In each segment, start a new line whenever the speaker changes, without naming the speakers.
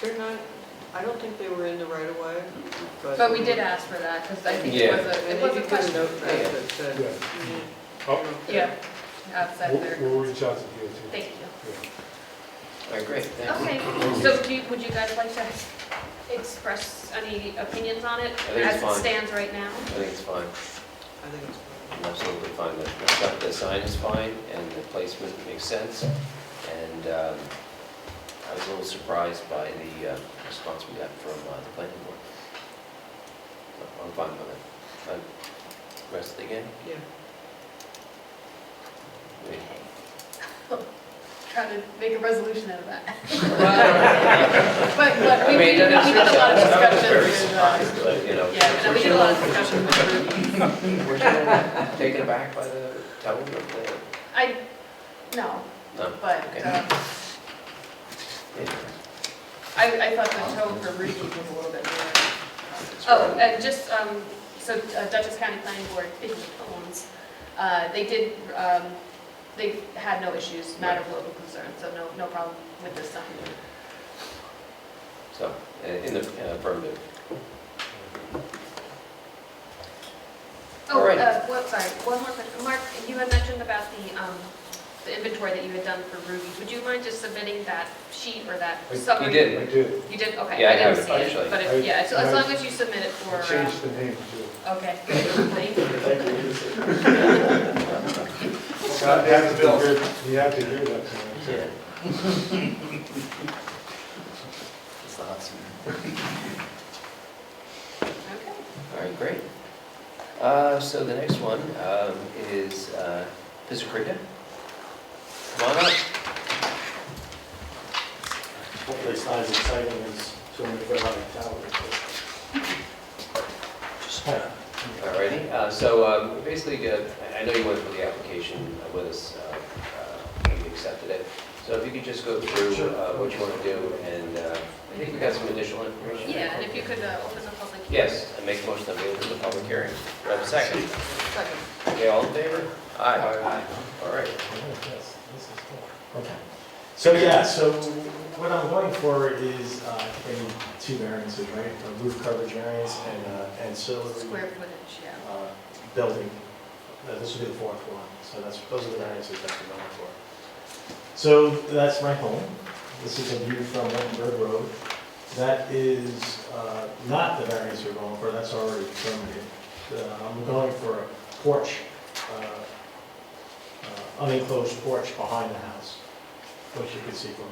They're not, I don't think they were in the right of way, but.
But we did ask for that, because I think it was a,
And
it
they
was a
did put a
question.
note back that said.
Yeah.
mm,
Oh,
Yeah, outside
We'll
there.
we'll reach out to DOT.
Thank you.
Yeah.
All right, great, thanks.
Okay, so do, you- would you guys like to express any opinions on it
think it's
as it
fine.
stands right now?
I think it's fine,
I think it's.
I'm absolutely fine. The- The stuff- the sign is fine, and the placement makes sense. And um, I was a little surprised by the uh, response we got from uh, the planning board. So I'm fine with it. Uh, Rest again?
Yeah.
We-
Try to make a resolution out of that.
Well,
But, but we,
I
we we
mean,
did
that is-
a lot of
I
discussion
was very
with, uh,
surprised, but, you know.
yeah, no, we did a lot of discussion with Ruby.
Were you taken aback by the tone of the,
I, no,
no?
but
Okay.
um, I, I thought the tone for Ruby was a little bit more. Oh, and just, um, so uh, Dutchess County Planning Board, speaking of homes, uh, they did, um, they had no issues, matter of local concern, so no, no problem with this sign.
So, uh, in the uh, affirmative.
Oh,
All right.
uh, what, sorry, one more question. Mark, you had mentioned about the, um, the inventory that you had done for Ruby. Would you mind just submitting that sheet or that
I-
summary?
You did.
I did.
You did, okay.
Yeah, I have
didn't
it,
see it,
actually.
But,
I-
it- yeah, so as
I-
long as you submit it for,
I
uh,
changed the name too.
okay, great, thank you.
You have to hear- you have to hear that tonight too.
It's the hot seat.
Okay.
All right, great. Uh, So the next one um, is uh, Pizzicaria. Come on up.
Hopefully it's not as exciting as showing the Fairlight Tower.
All righty. Uh, So um, basically, uh, I I know you went through the application with us, uh, uh, and you accepted it. So if you could just go through
Sure.
uh, what you want to do, and uh, I think we got some additional information.
Yeah, and if you could uh, open the public hearing.
Yes, I make a motion that we open the public hearing. Do I have a second?
Second.
Okay, all in favor? Aye. All right.
Okay. So, yeah, so what I'm going for is, uh, I think I need two variances, right? A roof coverage variance and uh,
Square
ancillary
footage, yeah.
uh, building. Uh, This would be the fourth one, so that's, those are the variances that I'm going for. So that's my home. This is a view from Wettenberg Road. That is uh, not the variance you're going for, that's already permitted. Uh, I'm going for a porch, uh, uh, unenclosed porch behind the house, which you can see from,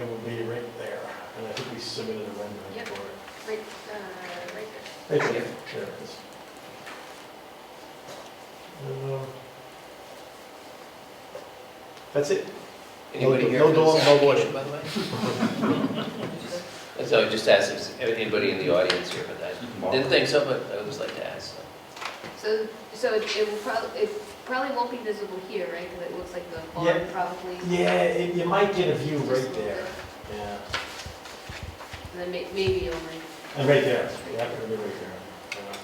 it will be right there. And I think we submitted a rendering
Yep.
for it.
Right, uh, right there.
Thank
Yeah.
you. Sure. it is. Uh, That's it.
Anybody
No-
here
no
for this
dog, no boy.
application, by the way? And So I just asked if there's anybody in the audience here, but I didn't think so, but I always like to ask. so.
So, so it it will probably, it probably won't be visible here, right? Because it looks like the barn
Yeah.
probably.
Yeah, it- you might get a view
Just a
right
little
there.
bit.
Yeah,
And then may- maybe over.
and right there. Yeah, it'll be right there. Yeah.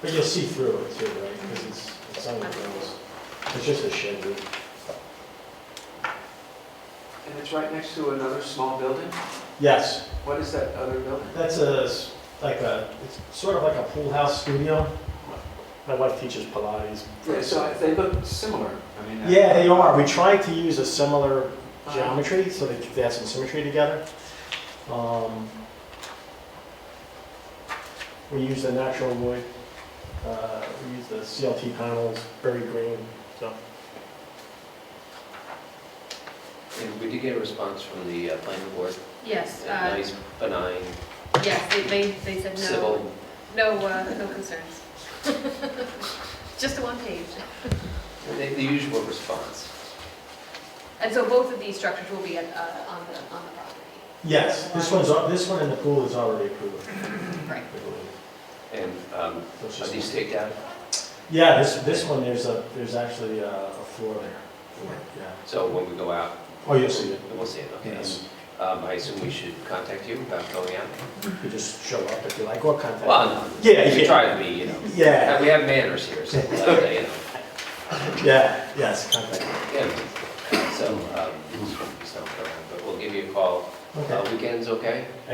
But you'll see through it too, right? Because it's, it's on the grounds. It's just a shed roof.
And it's right next to another small building?
Yes,
What is that other building?
that's a, s- like a, it's sort of like a pool house studio. My wife teaches Pilates.
Yeah, So they look similar. I mean, uh,
Yeah, Uh-huh. they are. We tried to use a similar geometry, so they, they have some symmetry together. Um, we use the natural wood, uh, we use the CLT panels, very green, so.
And we did get a response from the uh, planning board,
Yes,
a
uh,
nice, benign,
yes, they, they they said no,
civil.
no, uh, no concerns. Just the one page.
The the usual response.
And so both of these structures will be at, uh, on the, on the property.
Yes, this one's, al- this one in the pool is already approved, I
Right.
believe.
And um,
So it's
are
just-
these staked out?
Yeah, this, this one, there's a, there's actually a a floor there, yeah.
So when we go out,
Oh, you'll see it.
we'll see it, okay?
Yes.
Um, I assume we should contact you about going out?
You just show up if you like, or contact.
Well, no,
Yeah,
we
yeah.
try to be, you know,
Yeah,
we have manners here, so, uh, you know.
yeah, yes, contact.
Yeah, so, um, just don't go around, but we'll give you a call
Okay.
Uh, Weekends, okay?